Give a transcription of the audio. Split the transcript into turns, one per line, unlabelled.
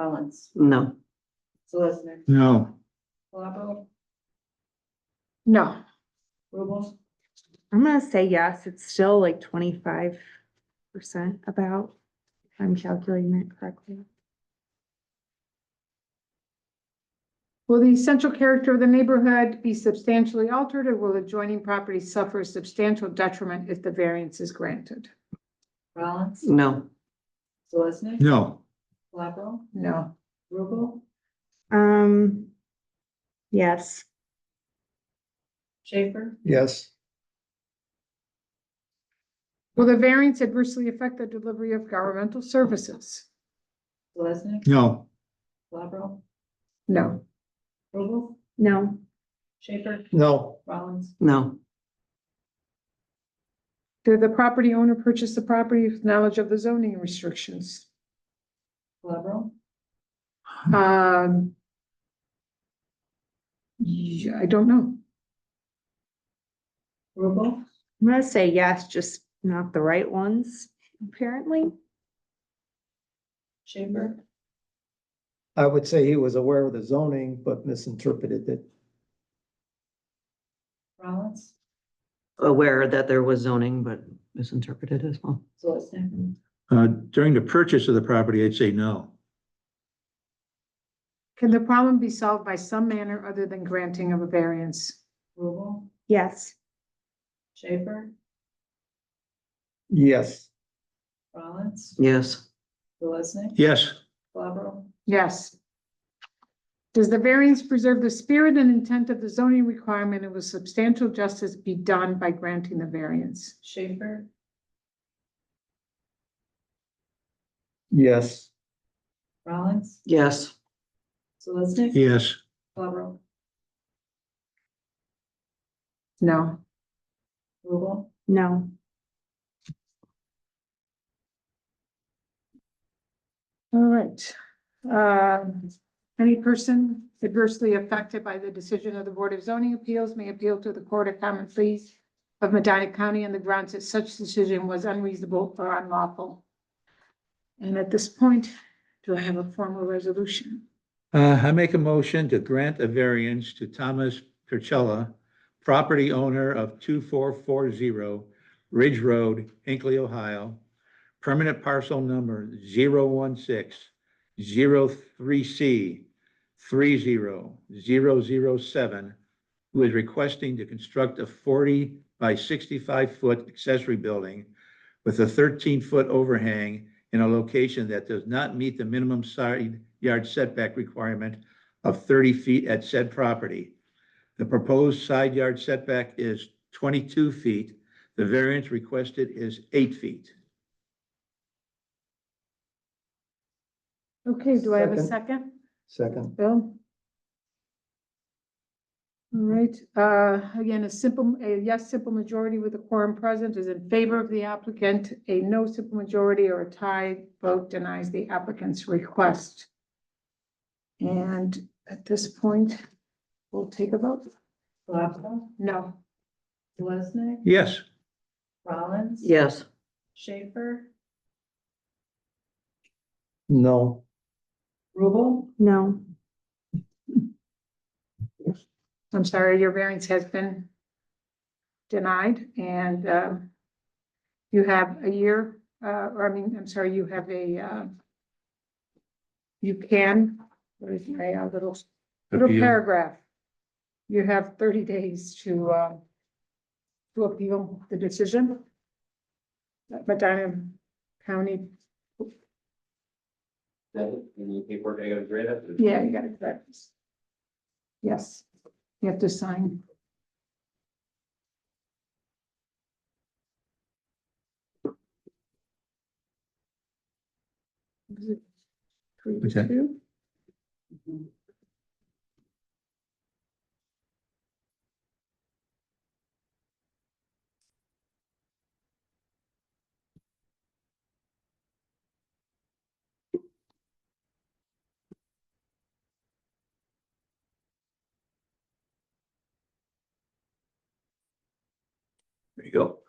Rollins,
No.
Solicitor,
No,
Flabo,
No,
Rubles,
I'm gonna say yes. It's still like twenty-five percent about, if I'm calculating that correctly.
Will the essential character of the neighborhood be substantially altered or will adjoining property suffer substantial detriment if the variance is granted?
Rollins,
No.
Solicitor,
no,
Flabo,
No.
Rubel,
Um, yes,
Schaefer,
yes,
Will the variance adversely affect the delivery of governmental services?
Solicitor,
no,
Flabo,
No.
Rubel,
no,
Schaefer,
no,
Rollins,
No.
Did the property owner purchase the property with knowledge of the zoning restrictions?
Flabo,
Um. yeah, I don't know.
Rubel,
I'm gonna say yes, just not the right ones, apparently.
Schaefer,
I would say he was aware of the zoning, but misinterpreted it.
Rollins,
Aware that there was zoning, but misinterpreted as well.
Solicitor,
uh, during the purchase of the property, I'd say no.
Can the problem be solved by some manner other than granting of a variance?
Rubel,
Yes,
Schaefer,
Yes,
Rollins,
Yes.
Solicitor,
Yes,
Flabo,
Yes. Does the variance preserve the spirit and intent of the zoning requirement and will substantial justice be done by granting the variance?
Schaefer,
yes,
Rollins,
Yes.
Solicitor,
yes,
Flabo,
No.
Rubel,
no,
All right. Um, Any person adversely affected by the decision of the Board of Zoning Appeals may appeal to the Court of Common Pleas of Medina County on the grounds that such decision was unreasonable or unlawful. And at this point, do I have a formal resolution?
uh, I make a motion to grant a variance to Thomas Percella, property owner of two four four zero Ridge Road, Hinkley, Ohio, permanent parcel number zero one six zero three C three zero zero zero seven, who is requesting to construct a forty by sixty-five foot accessory building with a thirteen-foot overhang in a location that does not meet the minimum side yard setback requirement of thirty feet at said property. The proposed side yard setback is twenty-two feet. The variance requested is eight feet.
Okay, do I have a
Second.
second?
second,
Bill? All right, uh, again, a simple, a yes, simple majority with a quorum present is in favor of the applicant. A no simple majority or a tie vote denies the applicant's request. And at this point, we'll take a vote.
Flabo,
No.
Solicitor,
Yes,
Rollins,
Yes.
Schaefer,
no,
Rubel,
no,
I'm sorry, your variance has been denied and um, you have a year, uh, or I mean, I'm sorry, you have a uh, you can, what is my uh, little, little
Appeal.
paragraph? You have thirty days to uh, to appeal the decision. that Medina County,
Then you need paperwork, I gotta grade it.
yeah, you got it correct. Yes, you have to sign. Is it three to
What's that?
two?
there you go.